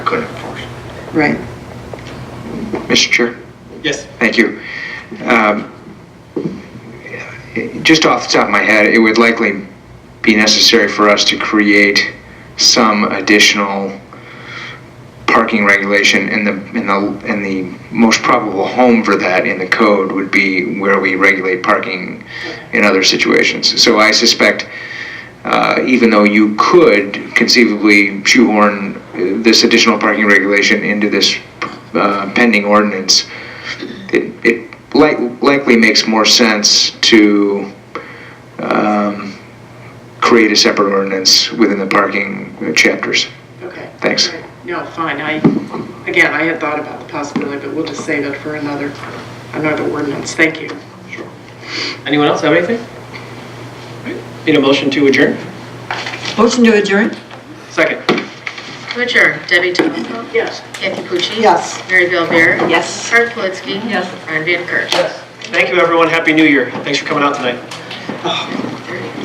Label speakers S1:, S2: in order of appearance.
S1: could enforce.
S2: right.
S3: Mr. Chair,
S1: Yes.
S3: thank you. Um, it- Just off the top of my head, it would likely be necessary for us to create some additional parking regulation, and the, and the, and the most probable home for that in the code would be where we regulate parking in other situations. So I suspect, uh, even though you could conceivably shoehorn uh, this additional parking regulation into this uh, pending ordinance, it, it like, likely makes more sense to um, create a separate ordinance within the parking uh, chapters.
S4: Okay.
S3: Thanks.
S4: No, fine, I, again, I had thought about the possibility, but we'll just save it for another, another ordinance, thank you.
S1: Anyone else have anything? Need a motion to adjourn?
S2: Motion to adjourn?
S1: Second.
S5: Richard, Debbie Tomusko,
S4: Yes.
S5: Kathy Pucci.
S2: Yes.
S5: Mary Bellbeer.
S2: Yes.
S5: Art Politsky.
S2: Yes.
S5: Ron Van Kirk.
S1: Thank you, everyone. Happy New Year. Thanks for coming out tonight.